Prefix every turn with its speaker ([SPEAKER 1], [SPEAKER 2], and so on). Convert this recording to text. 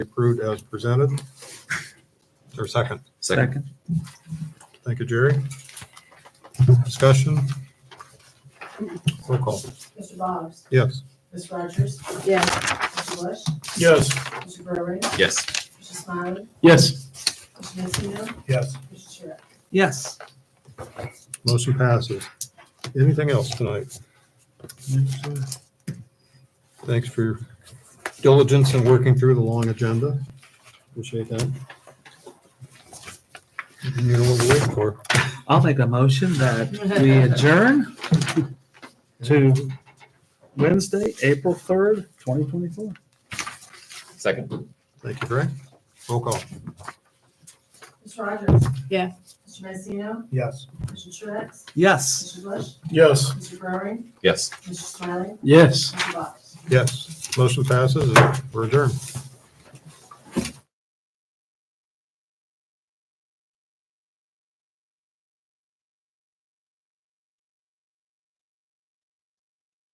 [SPEAKER 1] approved as presented. Is there a second?
[SPEAKER 2] Second.
[SPEAKER 1] Thank you, Jerry. Discussion? Roll call.
[SPEAKER 3] Mr. Boggs.
[SPEAKER 1] Yes.
[SPEAKER 3] Ms. Rogers.
[SPEAKER 4] yes,
[SPEAKER 3] Mr. Bush.
[SPEAKER 5] Yes.
[SPEAKER 3] Mr. Burry.
[SPEAKER 2] Yes.
[SPEAKER 3] Mr. Smiley.
[SPEAKER 5] Yes.
[SPEAKER 3] Mr. Nucio.
[SPEAKER 5] Yes.
[SPEAKER 3] Mr. Truax.
[SPEAKER 5] Yes.
[SPEAKER 1] Motion passes. Anything else tonight? Thanks for your diligence in working through the long agenda. Appreciate that. You know what to wait for.
[SPEAKER 5] I'll make a motion that we adjourn to Wednesday, April 3rd, 2024.
[SPEAKER 2] Second.
[SPEAKER 1] Thank you, Frank. Roll call.
[SPEAKER 3] Ms. Rogers.
[SPEAKER 4] Yes.
[SPEAKER 3] Mr. Nucio.
[SPEAKER 5] Yes.
[SPEAKER 3] Mr. Truax.
[SPEAKER 5] Yes.
[SPEAKER 3] Mr. Bush.
[SPEAKER 5] Yes.
[SPEAKER 3] Mr. Burry.
[SPEAKER 2] Yes.
[SPEAKER 3] Mr. Smiley.
[SPEAKER 5] Yes.
[SPEAKER 3] Mr. Boggs.
[SPEAKER 1] Yes, motion passes. We're adjourned.